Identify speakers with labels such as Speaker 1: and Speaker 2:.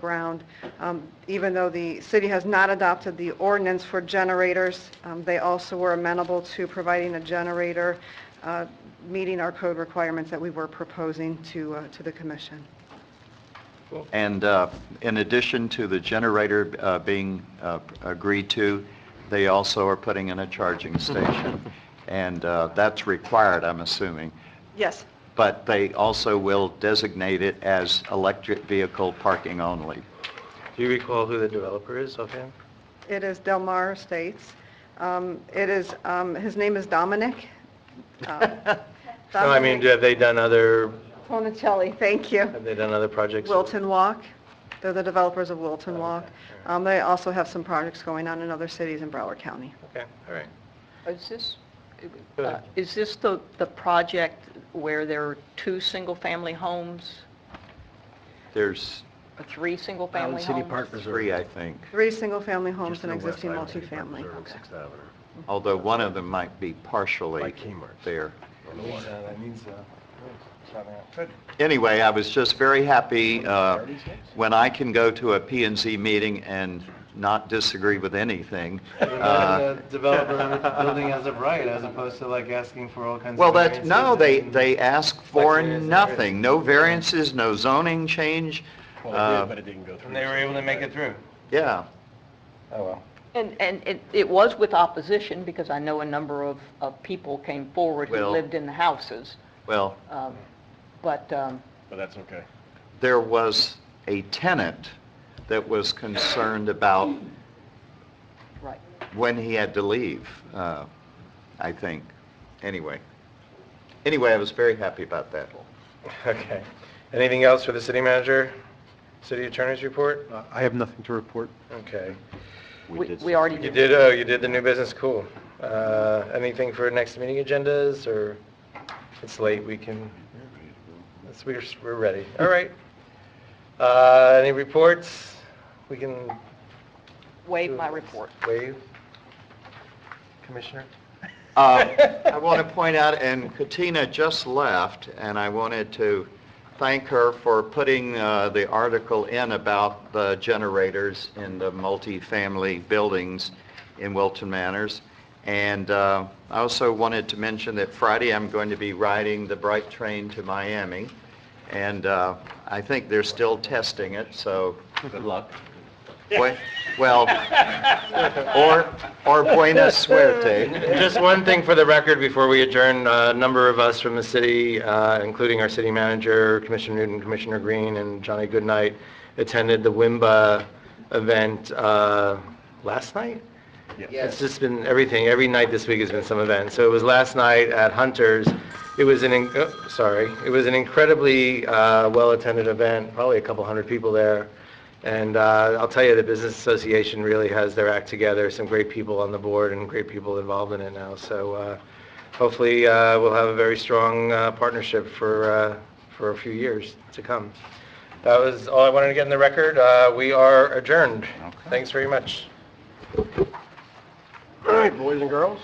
Speaker 1: ground. Um, Even though the city has not adopted the ordinance for generators, um, they also were amenable to providing a generator, uh, meeting our code requirements that we were proposing to, uh, to the commission.
Speaker 2: And uh, in addition to the generator uh, being uh, agreed to, they also are putting in a charging station. And uh, that's required, I'm assuming.
Speaker 1: Yes,
Speaker 2: But they also will designate it as electric vehicle parking only.
Speaker 3: Do you recall who the developer is offhand?
Speaker 1: it is Del Mar Estates. Um, It is, um, his name is Dominic. uh,
Speaker 3: No, I mean,
Speaker 1: Dominic
Speaker 3: do- have they done other,
Speaker 1: Fonicelli, thank you.
Speaker 3: have they done other projects?
Speaker 1: Wilton Walk. They're the developers of Wilton Walk. Um, They also have some projects going on in other cities in Broward County.
Speaker 3: Okay, all right.
Speaker 4: Is this,
Speaker 3: Go
Speaker 4: uh,
Speaker 3: ahead.
Speaker 4: is this the, the project where there are two single-family homes,
Speaker 2: There's
Speaker 4: or three single-family homes?
Speaker 5: City Park Reserve.
Speaker 2: three, I think,
Speaker 1: Three single-family homes
Speaker 5: Just
Speaker 1: and
Speaker 5: to the west
Speaker 1: existing
Speaker 5: side of City Park
Speaker 1: multifamily.
Speaker 5: Reserve and Sixth Avenue.
Speaker 2: although one of them might be
Speaker 5: By
Speaker 2: partially
Speaker 5: Kmart.
Speaker 2: there.
Speaker 5: on the water.
Speaker 3: That means, Good.
Speaker 2: Anyway, I was just very happy uh, when I can go to a P and Z meeting and not disagree with anything. Uh,
Speaker 3: The developer building as of right, as opposed to like asking for all kinds of...
Speaker 2: Well, that's,
Speaker 3: variances
Speaker 2: no, they,
Speaker 3: and-
Speaker 2: they ask for
Speaker 3: Like it is, it is.
Speaker 2: nothing, no variances, no zoning change,
Speaker 5: Well, it
Speaker 2: Uh,
Speaker 5: did, but it didn't go through.
Speaker 3: And they were able to make it through.
Speaker 2: yeah.
Speaker 3: Oh, well.
Speaker 4: And, and it, it was with opposition, because I know a number of, of people came forward who
Speaker 2: Well-
Speaker 4: lived in the houses,
Speaker 2: Well,
Speaker 4: um, but, um,
Speaker 5: But that's okay.
Speaker 2: there was a tenant that was concerned about
Speaker 4: right.
Speaker 2: when he had to leave, uh, I think, anyway. Anyway, I was very happy about that.
Speaker 3: Okay. Anything else for the city manager? City attorney's report?
Speaker 6: I have nothing to report.
Speaker 3: Okay.
Speaker 4: We we already
Speaker 3: You
Speaker 4: did.
Speaker 3: did, oh, you did the new business, cool. Uh, Anything for next meeting agendas, or it's late, we can, it's- we're, we're ready. All right. Uh, Any reports? We can
Speaker 4: Waive my report.
Speaker 3: waive? Commissioner?
Speaker 2: Uh, I want to point out, and Katina just left, and I wanted to thank her for putting uh, the article in about the generators in the multifamily buildings in Wilton Manors. And uh, I also wanted to mention that Friday, I'm going to be riding the Bright Train to Miami, and uh, I think they're still testing it, so... Good luck. Well, or or buena suerte.
Speaker 3: Just one thing for the record before we adjourn, uh, a number of us from the city, uh, including our city manager, Commissioner Newton, Commissioner Green, and Johnny Goodnight, attended the WIMBA event uh, last night? It's just been everything, every night this week has been some event. So it was last night at Hunter's, it was an, in- oh, sorry, it was an incredibly uh, well-attended event, probably a couple hundred people there. And uh, I'll tell you, the Business Association really has their act together, some great people on the board and great people involved in it now. So uh, hopefully, uh, we'll have a very strong uh, partnership for, uh, for a few years to come. That was all I wanted to get in the record. Uh, We are adjourned. Thanks very much.
Speaker 5: All right, boys and girls.